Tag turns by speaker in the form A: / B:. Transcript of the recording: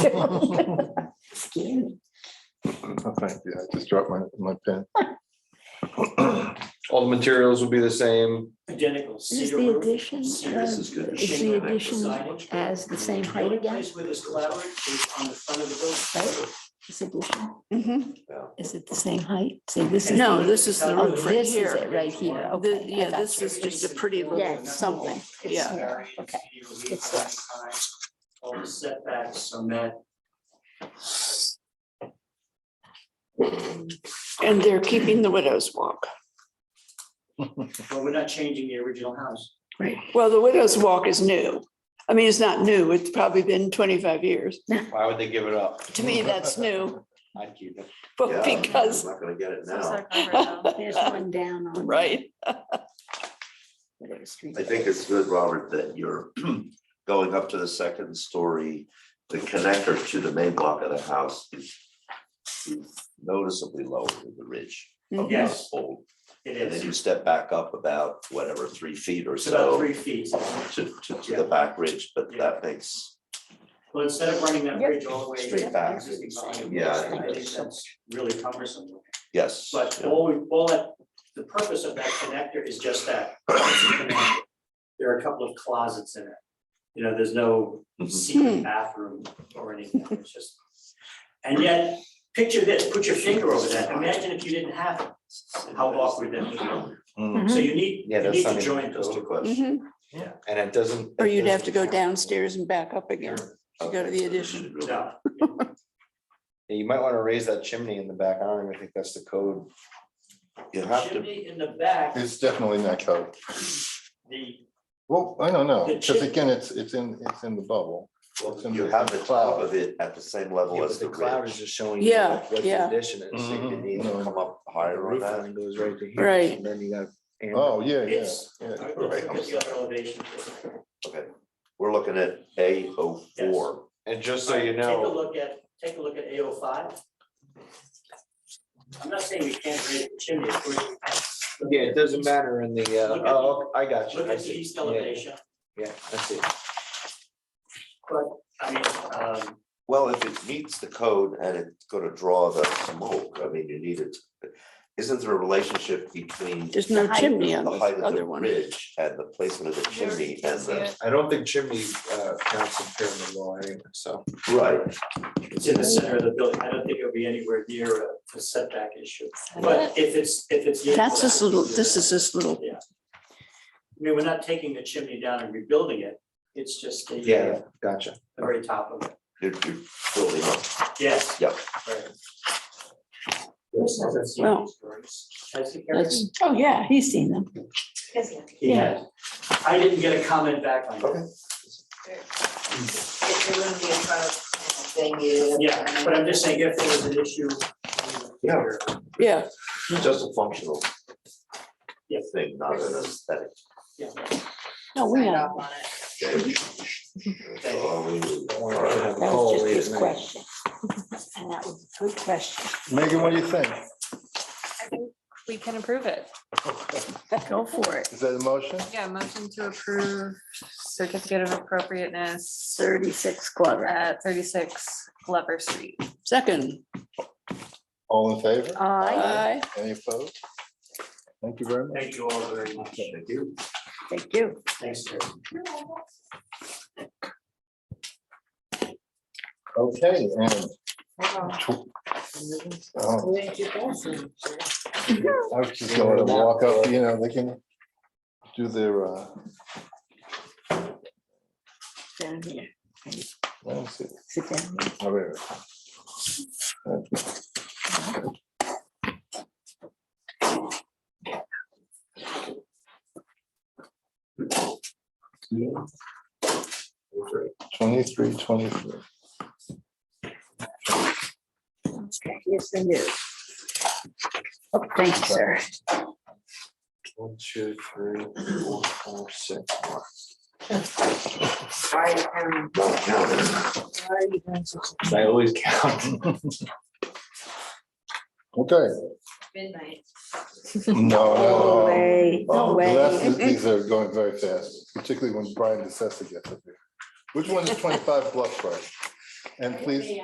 A: Scary.
B: Oh, Thank you. I just dropped my, my pen.
C: All the materials will be the same.
D: Identical.
A: Is
D: cedar
A: the
D: roof,
A: addition,
D: cedar
A: uh,
E: good.
A: is the
D: shingle,
A: addition
D: siding.
A: as the same
D: The
A: height
D: only
A: again?
D: place where this collaborates is on the front of the building.
A: Right? This addition,
F: Mhm.
A: is it the same height? So this is.
F: No, this is the
A: Oh,
F: roof right
A: this is
F: here.
A: it right here.
D: The-
A: Okay. I
F: yeah,
A: got
F: this
A: you.
F: is just a pretty little
A: Yeah, something. It's
F: Yeah.
A: small. Okay. It's this.
D: All the setbacks on that
F: And they're keeping the widow's walk.
D: Well, we're not changing the original house.
A: Right.
F: Well, the widow's walk is new. I mean, it's not new. It's probably been twenty-five years.
C: Why would they give it up?
F: To me, that's new,
C: I'd keep it.
F: but
E: Yeah,
F: because,
E: I'm not gonna get it
G: It's
E: now.
G: our cover though.
A: There's one down on.
F: right?
A: whatever street
E: I
A: it
E: think
A: is.
E: it's good, Robert, that you're going up to the second story. The connector to the main block of the house is is noticeably lower than the ridge.
F: Mm-hmm.
E: of the
D: Yes.
E: household.
D: It
E: And then
D: is.
E: you step back up about whatever, three feet or
D: It's about
E: so
D: three feet.
E: to, to, to the back ridge, but that makes,
D: Well, instead of running that
A: Yep.
D: bridge all the way.
E: Straight
D: to
E: back.
D: the existing volume,
E: Yeah, I
D: I
E: think
D: think that's really cumbersome.
E: yes.
D: But
E: yeah.
D: all, we- all that, the purpose of that connector is just that. it's a connector. There are a couple of closets in it. You know, there's no
E: Mhm.
D: secret bathroom or anything. It's just. And yet, picture this, put your finger over that. Imagine if you didn't have it. How awkward that would be.
B: Mm.
D: So you need,
C: Yeah,
D: you
C: that's
D: need to
C: something-
D: join those
E: Just a
D: two.
E: question.
A: Mm-hmm.
F: Mhm.
C: And it doesn't.
F: Or
C: it
F: you'd have to
C: doesn't-
F: go downstairs and back up again. to Mm-hmm. go to the addition.
D: No.
C: Yeah, You might want to raise that chimney in the back. I don't even think that's the code.
E: You have to,
D: Chimney in the back,
B: It's definitely not code.
D: the,
B: Well, I don't know,
D: The
B: because
D: chi-
B: again, it's, it's in, it's in the bubble.
E: well, you have the top of it at the same level
C: Yeah,
E: as
C: but
E: the
C: The cloud is
E: ridge.
C: just showing. you
F: Yeah,
C: like what the
F: yeah.
C: Addition is, so you
B: Mhm.
C: need to come up higher Mm-hmm. on
E: Roof
C: that.
E: line
C: goes right to
F: here, Right.
C: And then you got.
B: Oh, yeah, yeah,
D: it's.
B: yeah.
D: Let's look at the other elevation.
E: Okay, we're looking at A oh four.
C: And just so you
D: Take a
C: know,
D: look at, take a look at A O five. I'm not saying we can't raise the chimney, of course. we can.
C: yeah, it doesn't matter in the, uh,
D: Look at-
C: oh, I got you.
D: Look
C: I
D: at the
C: see.
D: east
C: Yeah,
D: elevation,
C: Yeah, I see.
D: I mean, um,
E: Well, if it meets the code and it's gonna draw the smoke, I mean, you need it. Isn't there a relationship between the
F: There's no chimney on
E: height
F: the
E: of the
F: other one.
E: ridge and the placement of the
G: There, you
E: chimney
G: can
E: and
G: see
E: the,
G: it.
C: I don't think chimney uh, counts in pyramid law anyway, so.
E: right,
D: it's in the center of the building, I don't think it'll be anywhere near a- a setback issue. But if it's, if it's.
F: That's this little, this is this little,
D: I mean, we're not taking the chimney down and rebuilding it, it's just the. uh,
C: Yeah, gotcha.
D: The very top of it,
E: you're, you're building up.
D: yes.
E: Yep.
D: Right. Bruce hasn't seen
F: Well,
D: these drawings. Has he, Karen?
F: that's,
A: Oh, yeah, he's seen them.
G: Yes, yeah.
D: He has. I didn't get a comment back on that.
G: It it wouldn't be a proud thing you.
D: Yeah, but I'm just saying if there was an issue.
E: Yeah.
F: yeah,
E: It's just a functional
D: Yeah.
E: thing, not an aesthetic.
D: Yeah.
F: no, we
G: Sign
F: know.
G: off on it.
E: thing. Oh, we- all right.
A: That was just his question. And that was a good question.
B: Megan, what do you think?
G: I think We can approve it.
A: Go for it.
B: Is that a motion?
G: Yeah, motion to approve certificate of appropriateness
A: Thirty-six Glover.
G: at thirty-six Glover Street.
F: Second,
B: All in favor?
A: Aye.
F: aye.
B: Any opposed? Thank you very much.
D: Thank you all very much.
E: Thank you.
A: Thank you.
D: Thanks, Terry.
B: Okay, and um, I was just going to walk up, you know, they can do their, uh,
A: Down here.
B: let me see.
A: Sit down. here.
B: Oh, wait, wait. Twenty-three, twenty-four.
A: Okay, Yes, I do. Oh, Thank you, sir.
C: One, two, three, four, five, six.
E: Don't count it.
C: I always count.
B: Okay.
G: Midnight.
B: No,
A: No
B: no, no.
A: way, no
B: The last
A: way.
B: of These are going very fast, particularly when Brian DeSessa gets up here. Which one is twenty-five Bluff Road? And please,